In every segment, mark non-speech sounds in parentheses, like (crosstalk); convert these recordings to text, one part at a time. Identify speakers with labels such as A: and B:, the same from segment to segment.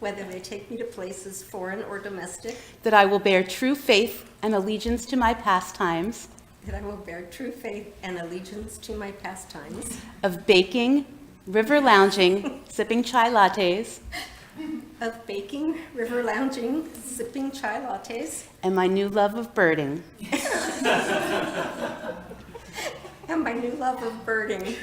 A: whether they take me to places foreign or domestic,
B: that I will bear true faith and allegiance to my pastimes
A: that I will bear true faith and allegiance to my pastimes
B: of baking, river lounging, sipping chai lattes,
A: of baking, river lounging, sipping chai lattes,
B: and my new love of birding.
A: and my new love of birding,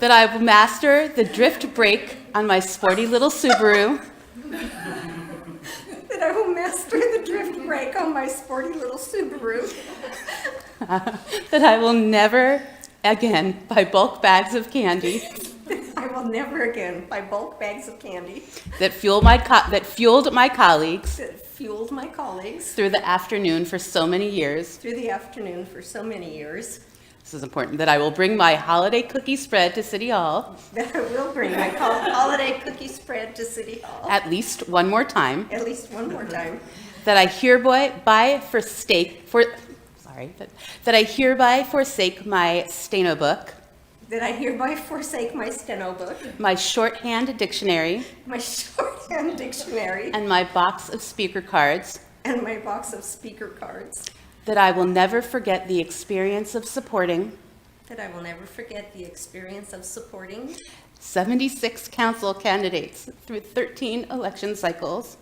B: That I will master the drift brake on my sporty little Subaru
A: that I will master the drift brake on my sporty little Subaru,
B: that I will never again buy bulk bags of candy
A: I will never again buy bulk bags of candy
B: that fuel my co- that fueled my colleagues
A: that fueled my colleagues
B: through the afternoon for so many years.
A: through the afternoon for so many years,
B: This is important. That I will bring my holiday cookie spread to City Hall
A: that I will bring my col- holiday cookie spread to City Hall
B: at least one more time.
A: at least one more time,
B: That I hereby buy for stake for sorry that, that I hereby forsake my steno book,
A: that I hereby forsake my steno book,
B: my shorthand dictionary,
A: my shorthand (laughs) dictionary,
B: and my box of speaker cards.
A: and my box of speaker cards,
B: That I will never forget the experience of supporting
A: that I will never forget the experience of supporting
B: 76 council candidates through 13 election cycles.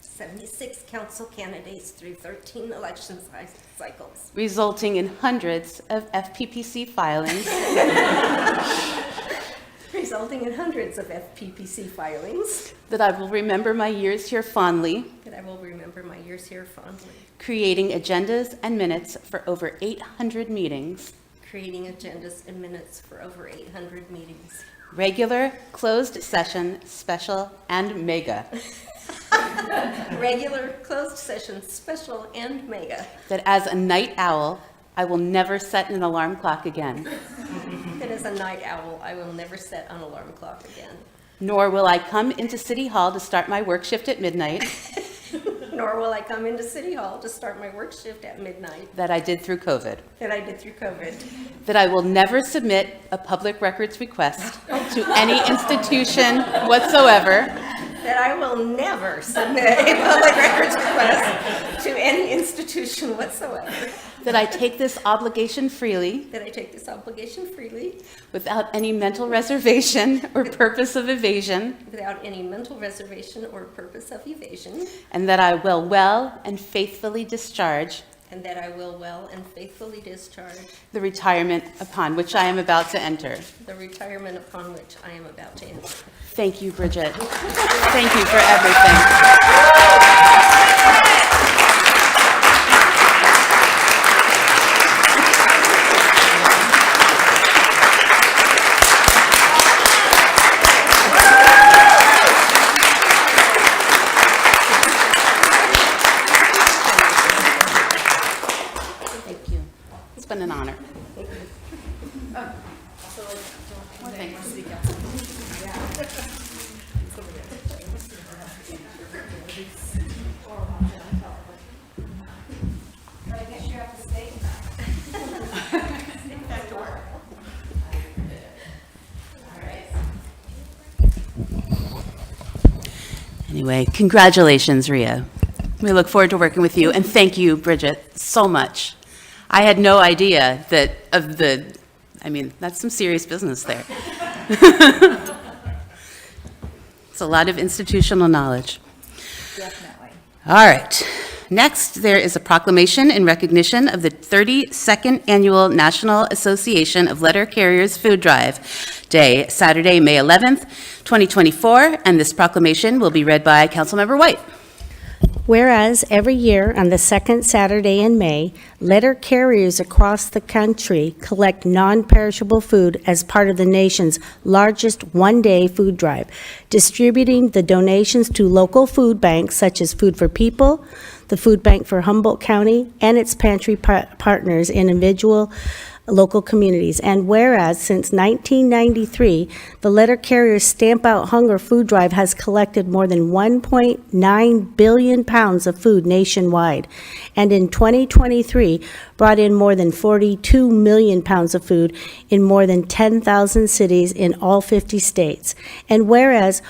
A: 76 council candidates through 13 election cy- cycles,
B: resulting in hundreds of FPPC filings,
A: resulting in hundreds of FPPC filings,
B: that I will remember my years here fondly,
A: that I will remember my years here fondly,
B: creating agendas and minutes for over 800 meetings,
A: creating agendas and minutes for over 800 meetings,
B: regular, closed session, special, and mega,
A: regular, closed sessions, special, and mega,
B: that as a night owl, I will never set an alarm clock again,
A: that as a night owl, I will never set an alarm clock again.
B: nor will I come into City Hall to start my work shift at midnight
A: Nor will I come into City Hall to start my work shift at midnight
B: that I did through COVID,
A: that I did through COVID.
B: that I will never submit a public records request to any institution whatsoever.
A: That I will never submit a public records request to any institution whatsoever.
B: That I take this obligation freely,
A: That I take this obligation freely
B: without any mental reservation or purpose of evasion,
A: without any mental reservation or purpose of evasion.
B: and that I will well and faithfully discharge
A: And that I will well and faithfully discharge
B: the retirement upon which I am about to enter.
A: the retirement upon which I am about to enter.
B: Thank you, Bridget. Thank you for everything. Thank you. It's been an honor. Anyway, congratulations, Ria. We look forward to working with you, and thank you, Bridget, so much. I had no idea that of the, I mean, that's some serious business there. (laughs) It's a lot of institutional knowledge. Definitely. All right. Next, there is a proclamation in recognition of the 32nd Annual National Association of Letter Carriers Food Drive Day, Saturday, May 11th, 2024, and this proclamation will be read by Councilmember White.
C: Whereas every year on the second Saturday in May, letter carriers across the country collect non-perishable food as part of the nation's largest one-day food drive, distributing the donations to local food banks such as Food for People, the Food Bank for Humboldt County, and its pantry par- partners in individual local communities. And whereas since 1993, the Letter Carriers Stamp Out Hunger Food Drive has collected more than 1.9 billion pounds of food nationwide, and in 2023 brought in more than 42 million pounds of food in more than 10,000 cities in all 50 states. And whereas